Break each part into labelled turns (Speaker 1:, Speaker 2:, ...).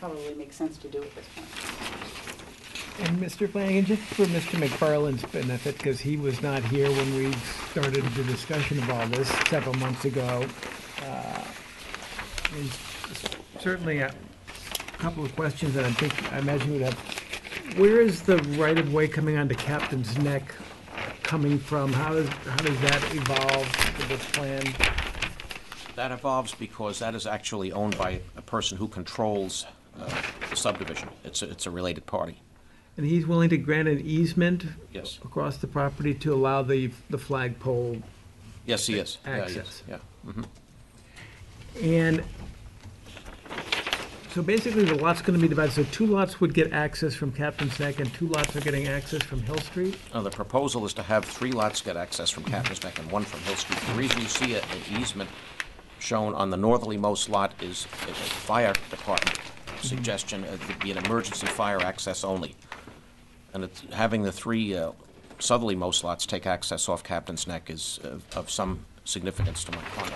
Speaker 1: probably makes sense to do at this point.
Speaker 2: And Mr. Flanagan, just for Mr. McFarland's benefit, because he was not here when we started the discussion of all this several months ago, uh, there's certainly a couple of questions that I think, I imagine we'd have. Where is the right-of-way coming onto Captain's Neck coming from? How does, how does that evolve with this plan?
Speaker 3: That evolves because that is actually owned by a person who controls uh, the subdivision. It's, a- it's a related party.
Speaker 2: And he's willing to grant an easement
Speaker 3: Yes.
Speaker 2: across the property to allow the, the flagpole
Speaker 3: Yes, he is. Yeah, he is.
Speaker 2: Access.
Speaker 3: Yeah.
Speaker 2: And so basically, the lot's gonna be divided, so two lots would get access from Captain's Neck, and two lots are getting access from Hill Street?
Speaker 3: Now, the proposal is to have three lots get access from Captain's Neck and one from Hill Street. The reason you see a- an easement shown on the northerlymost lot is a a fire department suggestion, uh, it'd be an emergency fire access only. And it's, having the three uh, southerlymost lots take access off Captain's Neck is of- of some significance to my client.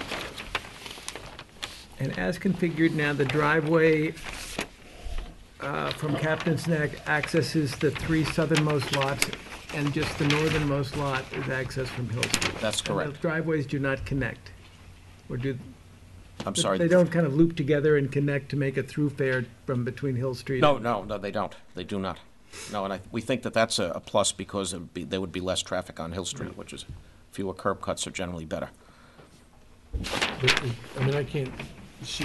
Speaker 2: And as configured now, the driveway uh, from Captain's Neck accesses the three southernmost lots, and just the northernmost lot is accessed from Hill Street.
Speaker 3: That's
Speaker 2: And the
Speaker 3: correct.
Speaker 2: driveways do not connect, or do,
Speaker 3: I'm sorry.
Speaker 2: they don't kind of loop together and connect to make a throughfare from between Hill Street?
Speaker 3: No, no, no, they don't. They do not. No, and I, we think that that's a, a plus because it'd be, there would be less traffic on Hill Street, which is, fewer curb cuts are generally better.
Speaker 4: But, it- I mean, I can't see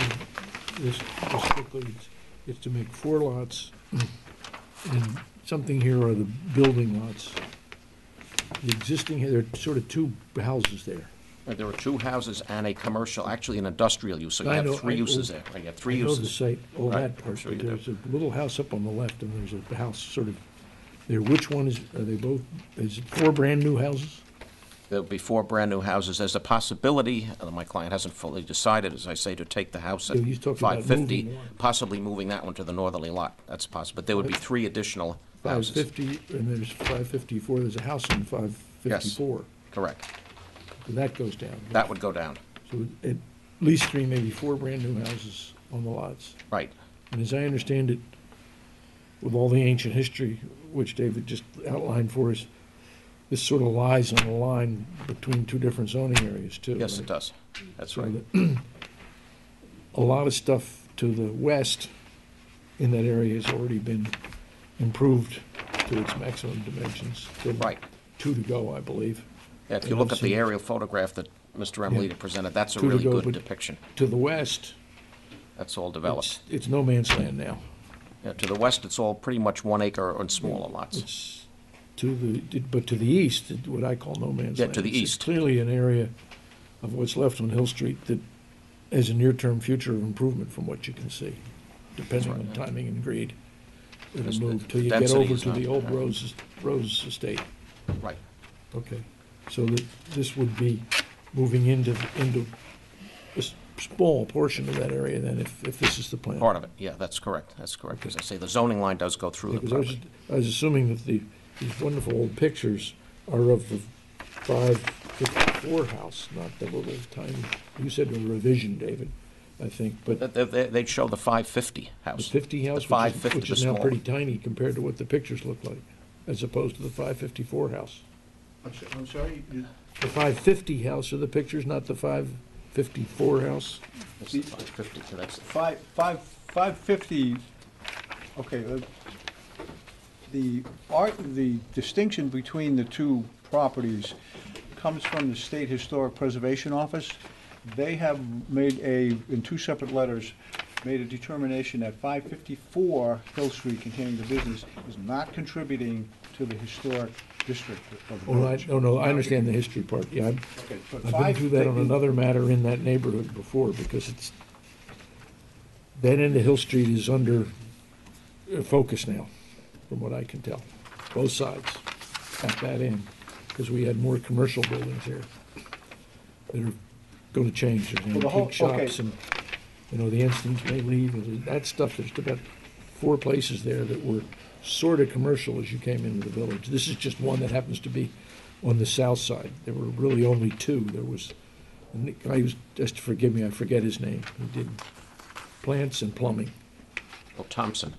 Speaker 4: this this quickly. It's- It's to make four lots, and something here are the building lots. The existing, here, there are sort of two houses there.
Speaker 3: And There are two houses and a commercial, actually an industrial use, so you
Speaker 4: I know,
Speaker 3: have three
Speaker 4: I-
Speaker 3: uses there. You have three
Speaker 4: I know the
Speaker 3: uses.
Speaker 4: site, all
Speaker 3: Right,
Speaker 4: that
Speaker 3: I'm
Speaker 4: part,
Speaker 3: sure you
Speaker 4: but
Speaker 3: do.
Speaker 4: there's a little house up on the left, and there's a house sort of, there, which one is, are they both, is it four brand-new houses?
Speaker 3: There'll be four brand-new houses. There's a possibility, and my client hasn't fully decided, as I say, to take the house at
Speaker 4: Yeah, he's talking about
Speaker 3: five fifty,
Speaker 4: moving one.
Speaker 3: possibly moving that one to the northerly lot. That's possible, but there would be three additional
Speaker 4: Five
Speaker 3: houses.
Speaker 4: fifty, and there's five fifty-four, there's a house in five fifty-four.
Speaker 3: Correct.
Speaker 4: That goes down.
Speaker 3: That would go down.
Speaker 4: So at least three, maybe four brand-new houses on the lots.
Speaker 3: Right.
Speaker 4: And as I understand it, with all the ancient history, which David just outlined for us, this sort of lies on a line between two different zoning areas, too.
Speaker 3: Yes, it
Speaker 4: right?
Speaker 3: does. That's
Speaker 4: So
Speaker 3: right.
Speaker 4: that A lot of stuff to the west in that area has already been improved to its maximum dimensions. There are
Speaker 3: Right.
Speaker 4: Two to go, I believe.
Speaker 3: Yeah, If
Speaker 4: And
Speaker 3: you look
Speaker 4: I've
Speaker 3: at the
Speaker 4: seen-
Speaker 3: aerial photograph that Mr. Emilita presented, that's a
Speaker 4: Two to
Speaker 3: really
Speaker 4: go,
Speaker 3: good
Speaker 4: but-
Speaker 3: depiction.
Speaker 4: To the west,
Speaker 3: That's all
Speaker 4: it's,
Speaker 3: developed.
Speaker 4: it's no man's land now.
Speaker 3: Yeah, To the west, it's all pretty much one acre and smaller lots.
Speaker 4: It's to the, but to the east, what I call no man's land.
Speaker 3: Yeah, to the
Speaker 4: It's
Speaker 3: east.
Speaker 4: Clearly an area of what's left on Hill Street that has a near-term future of improvement from what you can see, depending on timing and grade.
Speaker 3: Yes,
Speaker 4: It'll
Speaker 3: the
Speaker 4: move till you get
Speaker 3: density
Speaker 4: over
Speaker 3: is
Speaker 4: to the
Speaker 3: not-
Speaker 4: old
Speaker 3: yeah.
Speaker 4: Rose, Rose Estate.
Speaker 3: Right.
Speaker 4: Okay, so that this would be moving into, into a s- small portion of that area then, if, if this is the plan.
Speaker 3: Part of it, yeah, that's correct, that's correct. As I say, the zoning line does go through the
Speaker 4: Because I was,
Speaker 3: property.
Speaker 4: I was assuming that the, these wonderful old pictures are of the five fifty-four house, not the little tiny, you said a revision, David, I think, but
Speaker 3: That- that- that- They'd show the 550
Speaker 4: the
Speaker 3: house.
Speaker 4: fifty house, which is,
Speaker 3: 550,
Speaker 4: which
Speaker 3: the
Speaker 4: is now
Speaker 3: small
Speaker 4: pretty
Speaker 3: one.
Speaker 4: tiny compared to what the pictures look like, as opposed to the five fifty-four house.
Speaker 5: I'm so- I'm sorry, you-
Speaker 4: The five fifty house are the pictures, not the five fifty-four house?
Speaker 3: That's the 550, so that's-
Speaker 5: five, five, five fifty, okay, uh, the art, the distinction between the two properties comes from the State Historic Preservation Office. They have made a, in two separate letters, made a determination that five fifty-four Hill Street containing the business is not contributing to the historic district of the
Speaker 4: Oh, I,
Speaker 5: village.
Speaker 4: no, no, I understand the history part, yeah, I'm,
Speaker 5: Okay, but
Speaker 4: I've been
Speaker 5: five
Speaker 4: through that on
Speaker 5: fifty-
Speaker 4: another matter in that neighborhood before, because it's, that end of Hill Street is under uh, focus now, from what I can tell, both sides at that end, because we had more commercial buildings here that are gonna change, there's
Speaker 5: Well, the whole-
Speaker 4: antique shops
Speaker 5: okay.
Speaker 4: and, you know, the Instinct may leave, and that stuff, there's about four places there that were sort of commercial as you came into the village. This is just one that happens to be on the south side. There were really only two. There was, and the guy was, just forgive me, I forget his name, he did plants and plumbing.
Speaker 3: Oh, Thompson.